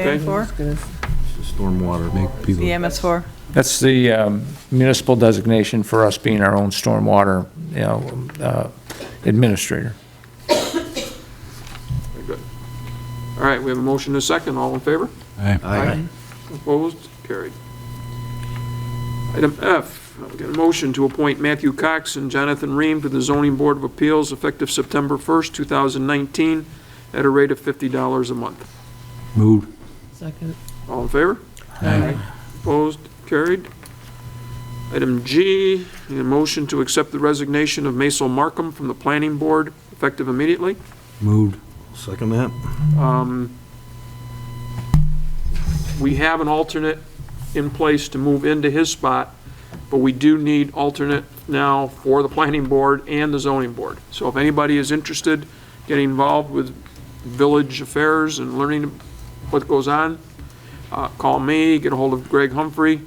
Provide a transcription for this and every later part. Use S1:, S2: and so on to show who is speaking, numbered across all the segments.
S1: Stand for?
S2: Stormwater, make people.
S1: The MS4?
S3: That's the um, municipal designation for us being our own stormwater, you know, uh, administrator.
S4: Very good. All right, we have a motion and a second. All in favor?
S2: Aye.
S4: Opposed? Carried. Item F, I'll get a motion to appoint Matthew Cox and Jonathan Ream to the Zoning Board of Appeals effective September 1st, 2019, at a rate of $50 a month.
S2: Moved.
S5: Second.
S4: All in favor? Opposed? Carried. Item G, a motion to accept the resignation of Maisel Markham from the Planning Board effective immediately.
S2: Moved. Second that.
S4: Um, We have an alternate in place to move into his spot, but we do need alternate now for the planning board and the zoning board. So if anybody is interested, getting involved with village affairs and learning what goes on, uh, call me, get a hold of Greg Humphrey.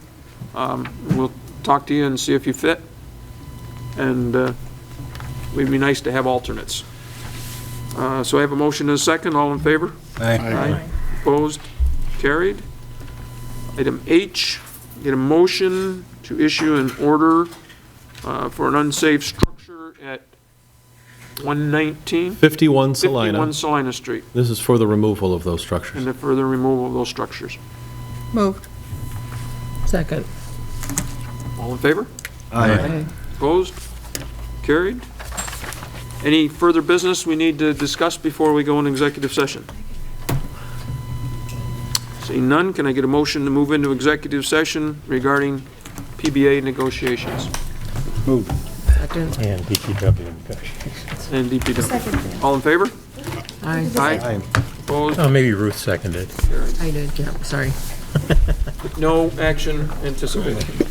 S4: Um, We'll talk to you and see if you fit. And uh, it'd be nice to have alternates. Uh, So I have a motion and a second. All in favor? Aye. Opposed? Carried. Item H, get a motion to issue an order uh, for an unsafe structure at 119, 51
S6: 51 Salina.
S4: Salina Street,
S6: This is for the removal of those
S4: and
S6: structures.
S4: the further removal of those structures.
S1: Moved.
S5: Second.
S4: All in favor?
S2: Aye.
S4: Opposed? Carried. Any further business we need to discuss before we go into executive session? Seeing none, can I get a motion to move into executive session regarding PBA negotiations
S5: Second.
S7: and DPW
S4: and DPW? All in favor?
S5: I,
S4: Aye. Opposed?
S7: Oh, maybe Ruth seconded.
S5: I did, yeah, sorry.
S4: No action anticipated.